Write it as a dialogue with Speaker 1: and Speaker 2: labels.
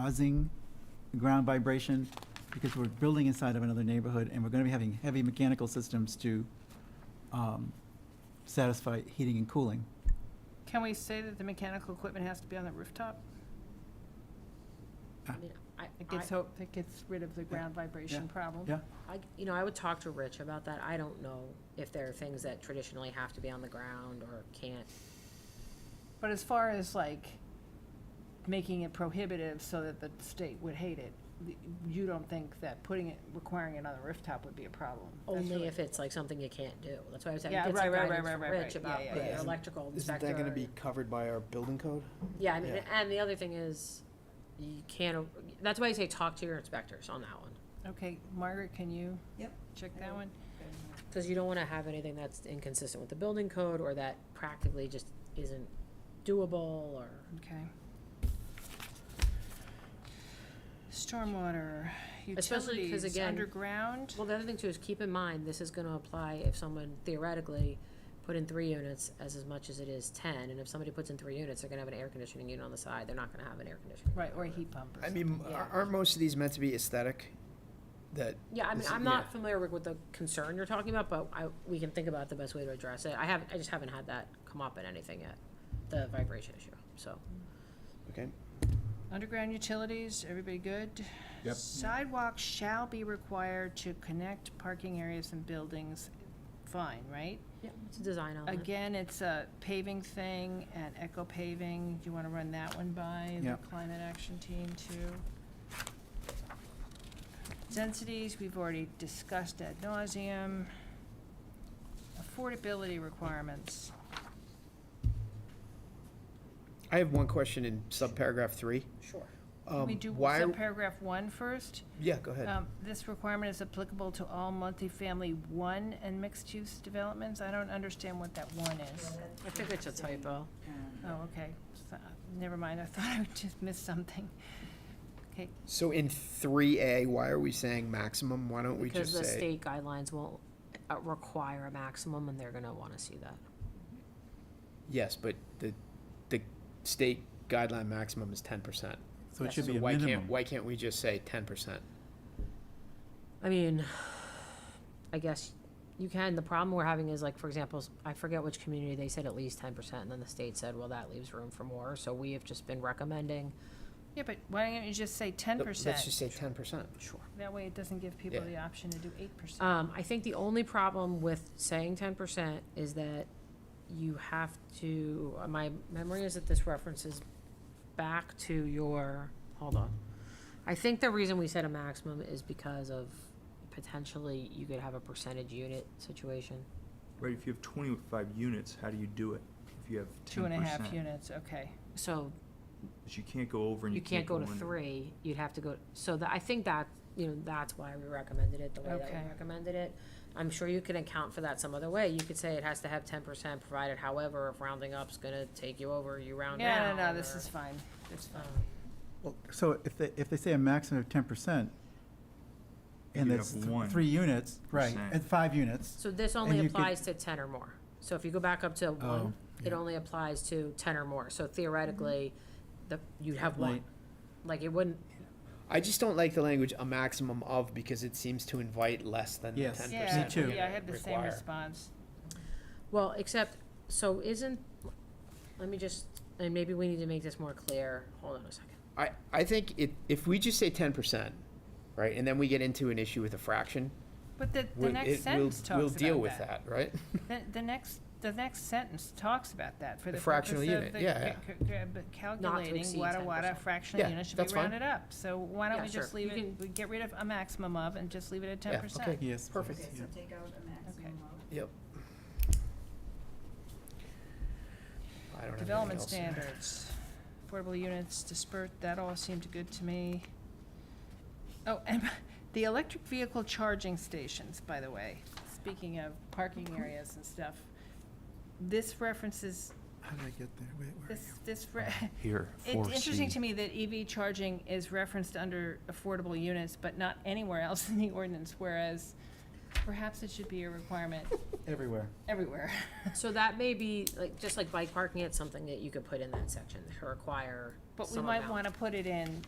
Speaker 1: causing ground vibration because we're building inside of another neighborhood and we're gonna be having heavy mechanical systems to um, satisfy heating and cooling.
Speaker 2: Can we say that the mechanical equipment has to be on the rooftop?
Speaker 1: Ah.
Speaker 3: I mean, I,
Speaker 2: It
Speaker 3: I-
Speaker 2: gets, ho- it gets rid of the ground vibration problem.
Speaker 1: Yeah,
Speaker 3: I, you know, I would talk to Rich about that. I don't know if there are things that traditionally have to be on the ground or can't.
Speaker 2: But as far as like making it prohibitive so that the state would hate it, th- you don't think that putting it, requiring it on the rooftop would be a problem? That's
Speaker 3: Only
Speaker 2: really-
Speaker 3: if it's like something you can't do. That's why I was saying,
Speaker 2: Yeah,
Speaker 3: get
Speaker 2: right,
Speaker 3: some
Speaker 2: right,
Speaker 3: guidance
Speaker 2: right,
Speaker 3: from
Speaker 2: right, right,
Speaker 3: Rich
Speaker 2: right.
Speaker 3: about
Speaker 2: Yeah,
Speaker 4: yeah, yeah.
Speaker 3: the electrical
Speaker 4: Isn't
Speaker 3: inspector.
Speaker 4: that gonna be covered by our building code?
Speaker 3: Yeah, I mean,
Speaker 4: yeah.
Speaker 3: and the other thing is, you can't, that's why I say talk to your inspectors on that one.
Speaker 2: Okay, Margaret, can you?
Speaker 5: Yep.
Speaker 2: Check that one?
Speaker 3: Because you don't want to have anything that's inconsistent with the building code or that practically just isn't doable or.
Speaker 2: Okay. Stormwater,
Speaker 3: Especially 'cause
Speaker 2: utilities,
Speaker 3: again-
Speaker 2: underground?
Speaker 3: Well, the other thing too is keep in mind, this is gonna apply if someone theoretically put in three units as as much as it is ten, and if somebody puts in three units, they're gonna have an air conditioning unit on the side, they're not gonna have an air conditioner.
Speaker 2: Right, or a heat pump or
Speaker 4: I
Speaker 2: something.
Speaker 4: mean,
Speaker 3: Yeah.
Speaker 4: ar- aren't most of these meant to be aesthetic? That,
Speaker 3: Yeah, I mean,
Speaker 4: This-
Speaker 3: I'm not
Speaker 4: yeah.
Speaker 3: familiar with, with the concern you're talking about, but I, we can think about the best way to address it. I have, I just haven't had that come up in anything yet, the vibration issue, so.
Speaker 4: okay,
Speaker 2: Underground utilities, everybody good?
Speaker 6: Yep.
Speaker 2: Sidewalks shall be required to connect parking areas and buildings, fine, right?
Speaker 3: Yeah, it's a design element.
Speaker 2: Again, it's a paving thing and eco paving, do you wanna run that one by the
Speaker 1: Yeah.
Speaker 2: climate action team too? Densities, we've already discussed ad nauseum. Affordability requirements,
Speaker 4: I have one question in subparagraph three.
Speaker 3: Sure.
Speaker 2: can we
Speaker 4: Um,
Speaker 2: do
Speaker 4: why-
Speaker 2: subparagraph one first?
Speaker 4: Yeah, go ahead.
Speaker 2: Um, This requirement is applicable to all multifamily one and mixed-use developments? I don't understand what that one is.
Speaker 3: I think it's a typo.
Speaker 2: Oh, okay. So, Never mind, I thought I just missed something. Okay,
Speaker 4: So in three A, why are we saying maximum? Why don't we
Speaker 3: Because
Speaker 4: just
Speaker 3: the
Speaker 4: say?
Speaker 3: state guidelines won't uh, require a maximum, and they're gonna wanna see that.
Speaker 4: Yes, but the, the state guideline maximum is ten percent.
Speaker 1: so it
Speaker 3: Yes.
Speaker 1: should
Speaker 4: So
Speaker 1: be a
Speaker 4: why
Speaker 1: minimum.
Speaker 4: can't, why can't we just say ten percent?
Speaker 3: I mean, I guess you can. The problem we're having is like, for example, s- I forget which community, they said at least ten percent, and then the state said, well, that leaves room for more, so we have just been recommending.
Speaker 2: yeah, but why don't you just say ten
Speaker 4: Let's just
Speaker 2: percent?
Speaker 4: say ten percent.
Speaker 3: Sure.
Speaker 2: That way it doesn't give people
Speaker 4: Yeah.
Speaker 2: the option to do eight percent.
Speaker 3: Um, I think the only problem with saying ten percent is that you have to, uh, my memory is that this references back to your, hold on. I think the reason we said a maximum is because of potentially you could have a percentage unit situation.
Speaker 6: Right, if you have twenty-five units, how do you do it? If you have
Speaker 2: Two and a half
Speaker 6: 10%?
Speaker 2: units, okay.
Speaker 3: So
Speaker 6: But you can't go over and
Speaker 3: You can't go to
Speaker 6: under.
Speaker 3: three, you'd have to go, so that, I think that, you know, that's why we recommended it the way that
Speaker 2: Okay.
Speaker 3: we recommended it. I'm sure you can account for that some other way, you could say it has to have ten percent provided, however, if rounding up's gonna take you over, you round down.
Speaker 2: Yeah, no, no, this
Speaker 3: or-
Speaker 2: is fine, this is fine.
Speaker 3: Um,
Speaker 1: Well, So if they, if they say a maximum of ten percent,
Speaker 6: You
Speaker 1: and
Speaker 6: could
Speaker 1: that's
Speaker 6: have
Speaker 1: th-
Speaker 6: one
Speaker 1: three units, right,
Speaker 6: percent.
Speaker 1: and five units,
Speaker 3: So this only
Speaker 1: you could- Oh,
Speaker 3: applies to ten or more, so if you go back up to one, it
Speaker 1: yeah.
Speaker 3: only applies to ten or more, so theoretically,
Speaker 2: Mm-hmm.
Speaker 3: the, you'd have one.
Speaker 1: Right.
Speaker 3: Like, it wouldn't,
Speaker 4: I just don't like the language a maximum of because it seems to invite less than the ten
Speaker 1: Yes.
Speaker 4: percent.
Speaker 1: Yeah, me too.
Speaker 2: Yeah, I had the same response.
Speaker 3: Well, except, so isn't, let me just, and maybe we need to make this more clear, hold on a second.
Speaker 4: I, I think it, if we just say ten percent, right, and then we get into an issue with a fraction,
Speaker 2: But the, the
Speaker 4: we'll,
Speaker 2: next
Speaker 4: it, we'll,
Speaker 2: sentence
Speaker 4: we'll
Speaker 2: talks
Speaker 4: deal
Speaker 2: about
Speaker 4: with
Speaker 2: that.
Speaker 4: that, right?
Speaker 2: The, the next, the next sentence talks about that, for the purpose
Speaker 4: The
Speaker 2: of
Speaker 4: fractional
Speaker 2: the
Speaker 4: unit, yeah,
Speaker 2: ca- ca- ca- but calculating
Speaker 3: exceed
Speaker 2: wada wada
Speaker 3: 10%.
Speaker 2: fractional
Speaker 4: Yeah,
Speaker 2: units should
Speaker 4: that's
Speaker 2: be
Speaker 4: fine.
Speaker 2: rounded up. So why don't
Speaker 3: Yeah,
Speaker 2: we just
Speaker 3: sure.
Speaker 2: leave
Speaker 3: You
Speaker 2: it,
Speaker 3: can-
Speaker 2: we get rid of a maximum of and just leave it at
Speaker 4: Yeah,
Speaker 2: ten percent?
Speaker 4: okay.
Speaker 1: yes.
Speaker 4: Perfect.
Speaker 5: Okay,
Speaker 1: please,
Speaker 5: so
Speaker 1: yeah.
Speaker 5: take out a maximum of.
Speaker 4: Yep. I don't have anything
Speaker 2: Development
Speaker 4: else.
Speaker 2: standards, affordable units dispersed, that all seemed good to me. Oh, and the electric vehicle charging stations, by the way, speaking of parking areas and stuff. This references,
Speaker 1: How did I get there? Wait, where are
Speaker 2: this,
Speaker 1: you?
Speaker 2: this, re-
Speaker 7: Here,
Speaker 2: It's interesting
Speaker 7: 4C.
Speaker 2: to me that EV charging is referenced under affordable units, but not anywhere else in the ordinance, whereas perhaps it should be a requirement
Speaker 1: Everywhere.
Speaker 2: everywhere.
Speaker 3: So that may be, like, just like bike parking, it's something that you could put in that section, to require
Speaker 2: But we
Speaker 3: some
Speaker 2: might
Speaker 3: amount.
Speaker 2: want to put it in